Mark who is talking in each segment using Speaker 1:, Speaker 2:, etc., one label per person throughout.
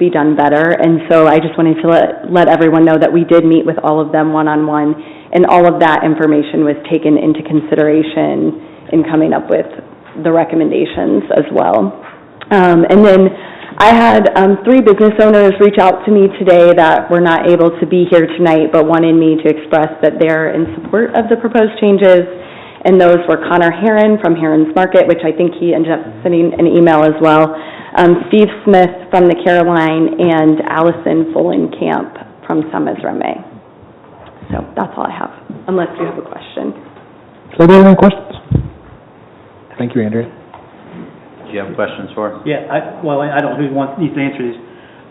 Speaker 1: be done better. And so I just wanted to let, let everyone know that we did meet with all of them one-on-one, and all of that information was taken into consideration in coming up with the recommendations as well. Um, and then I had, um, three business owners reach out to me today that were not able to be here tonight, but wanted me to express that they're in support of the proposed changes. And those were Connor Heron from Heron's Market, which I think he ended up sending an email as well, um, Steve Smith from the Caroline, and Allison Fulenkamp from Summers Reme. So that's all I have, unless you have a question.
Speaker 2: Does anybody have any questions? Thank you, Andrea.
Speaker 3: Do you have questions for him?
Speaker 4: Yeah, I, well, I I don't, who wants, needs to answer this.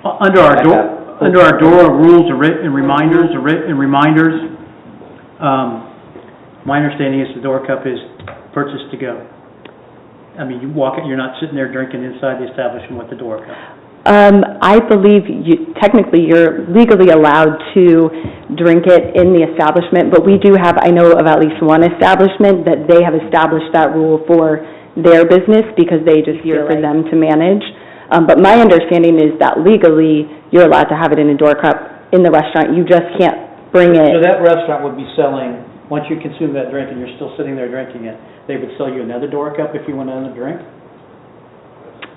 Speaker 4: U- Under our door,
Speaker 3: Okay.
Speaker 4: under our door of rules and writ- and reminders, and writ- and reminders, um, my understanding is the door cup is purchased to go. I mean, you walk, in, you're not sitting there drinking inside the establishment with the door cup.
Speaker 1: Um, I believe you, technically, you're legally allowed to drink it in the establishment, but we do have, I know of at least one establishment that they have established that rule for their business because they just feel for them to manage. Um, but my understanding is that legally, you're allowed to have it in a door cup in the restaurant, you just can't bring
Speaker 4: So
Speaker 1: it.
Speaker 4: that restaurant would be selling, once you consume that drink and you're still sitting there drinking it, they would sell you another door cup if you want another drink?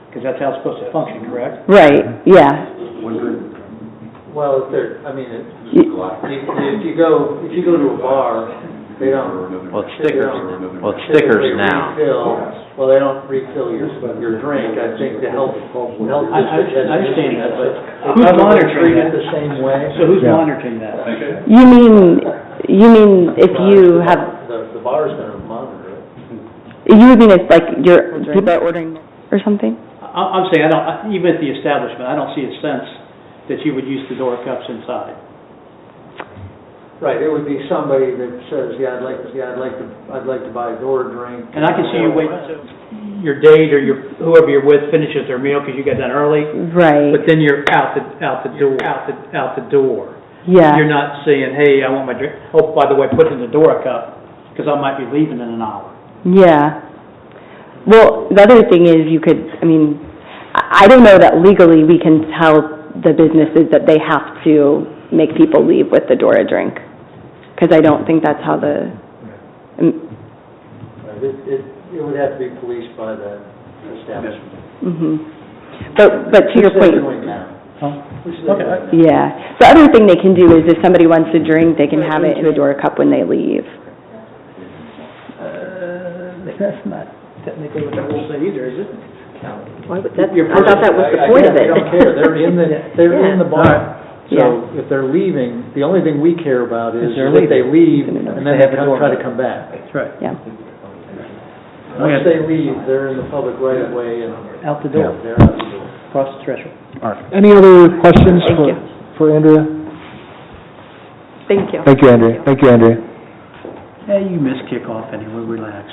Speaker 4: Because that's how it's supposed to function, correct?
Speaker 1: Right, yeah,
Speaker 5: Well, if they're, I mean, it-
Speaker 1: Y-
Speaker 5: if, if you go, if you go to a bar, they don't.
Speaker 3: Well, it's stickers, well, it's stickers
Speaker 5: typically
Speaker 3: now.
Speaker 5: refill- Well, they don't refill your, your drink, I think the health, health
Speaker 4: I- I-
Speaker 5: district has.
Speaker 4: I understand that, but
Speaker 5: They
Speaker 4: who's
Speaker 5: probably
Speaker 4: monitoring
Speaker 5: treat it
Speaker 4: that?
Speaker 5: The same way.
Speaker 4: So who's
Speaker 2: Yeah.
Speaker 4: monitoring that?
Speaker 1: you mean, you mean if you have,
Speaker 5: The, the bar's gonna monitor it.
Speaker 1: you would mean if like you're, people are ordering or something?
Speaker 4: I- I'm saying, I don't, I- even at the establishment, I don't see a sense that you would use the door cups inside.
Speaker 5: Right, it would be somebody that says, yeah, I'd like, yeah, I'd like to, I'd like to buy a door drink.
Speaker 4: And I can see you waiting until your date or your, whoever you're with finishes their meal because you got done early,
Speaker 1: Right,
Speaker 4: but then you're out the, out the door, out the, out the door.
Speaker 1: yeah.
Speaker 4: You're not saying, hey, I want my drink, oh, by the way, put it in the door cup, because I might be leaving in an hour.
Speaker 1: Yeah. Well, the other thing is you could, I mean, I I don't know that legally we can tell the businesses that they have to make people leave with the door a drink. Because I don't think that's how the,
Speaker 5: Right, It, it, it would have to be policed by the establishment.
Speaker 1: mm-hmm. But, but to your
Speaker 5: Which
Speaker 1: point.
Speaker 5: they're doing now. Which they're
Speaker 4: Okay.
Speaker 5: doing now.
Speaker 1: Yeah. The other thing they can do is if somebody wants to drink, they can have it in a door cup when they leave.
Speaker 6: That's not technically what the rule says.
Speaker 4: either, is it?
Speaker 6: Why would that,
Speaker 4: Your
Speaker 6: I thought that was the point of it.
Speaker 5: I- I guess they don't care, they're in the, they're in the bar. So
Speaker 1: Yeah.
Speaker 5: if they're leaving, the only thing we care about is
Speaker 4: Is they're
Speaker 5: that they leave
Speaker 1: Leaving.
Speaker 5: and then they come- try to come back.
Speaker 4: That's right.
Speaker 1: Yeah.
Speaker 5: Once they leave, they're in the public right of way and
Speaker 4: Out the
Speaker 2: door.
Speaker 5: they're out the door.
Speaker 4: across the threshold.
Speaker 2: All right. Any other questions for, for Andrea?
Speaker 1: Thank you.
Speaker 2: Thank you, Andrea. Thank you, Andrea.
Speaker 4: Hey, you missed kickoff anyway, relax.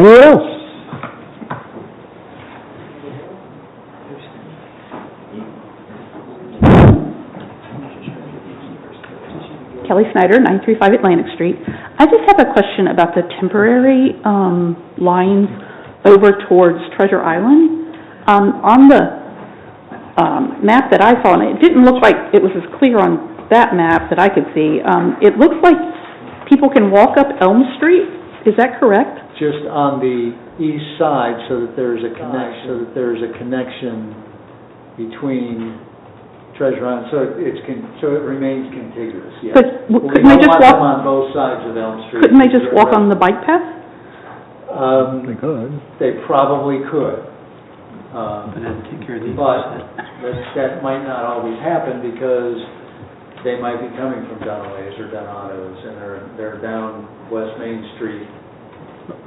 Speaker 2: Anyone else?
Speaker 7: Kelly Snyder, 935 Atlantic Street. I just have a question about the temporary um, lines over towards Treasure Island. Um, On the um, map that I saw, and it didn't look like it was as clear on that map that I could see, um, it looks like people can walk up Elm Street. Is that correct?
Speaker 5: Just on the east side so that there's a connect, so that there's a connection between Treasure Island, so it's, con- so it remains contiguous, yes.
Speaker 7: But w-
Speaker 5: We
Speaker 7: couldn't they
Speaker 5: don't
Speaker 7: just
Speaker 5: want them
Speaker 7: walk-
Speaker 5: on both sides of Elm Street.
Speaker 7: Couldn't they just walk on the bike path?
Speaker 5: Um,
Speaker 2: could.
Speaker 5: They probably could. Um,
Speaker 4: But then take care of these.
Speaker 5: But that, that might not always happen because they might be coming from Dunaway's or Donato's and they're, they're down West Main Street.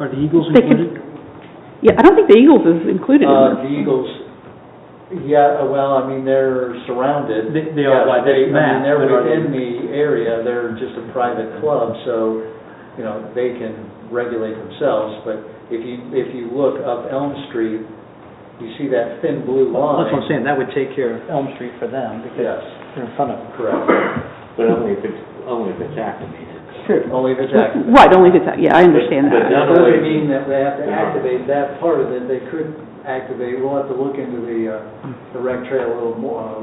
Speaker 4: Are the Eagles
Speaker 7: They could-
Speaker 4: included?
Speaker 7: Yeah, I don't think the Eagles is included in
Speaker 5: Uh,
Speaker 7: this.
Speaker 5: the Eagles, yeah, uh, well, I mean, they're surrounded.
Speaker 4: They- they are
Speaker 5: Yeah,
Speaker 4: by
Speaker 5: they-
Speaker 4: this
Speaker 5: I mean,
Speaker 4: map,
Speaker 5: they're
Speaker 4: but are they-
Speaker 5: within the area, they're just a private club, so, you know, they can regulate themselves. But if you, if you look up Elm Street, you see that thin blue line.
Speaker 4: Oh, That's what I'm saying, that would take care of Elm Street for them, because
Speaker 5: Yes,
Speaker 4: they're in front of them.
Speaker 5: correct.
Speaker 8: But only if it's, only if it's activated.
Speaker 5: Only if it's active.
Speaker 7: Right, only if it's, yeah, I understand that.
Speaker 8: But-
Speaker 5: That
Speaker 8: Not always.
Speaker 5: doesn't mean that they have to activate that part of it, they could activate, we'll have to look into the, uh, the rec trail a little more, a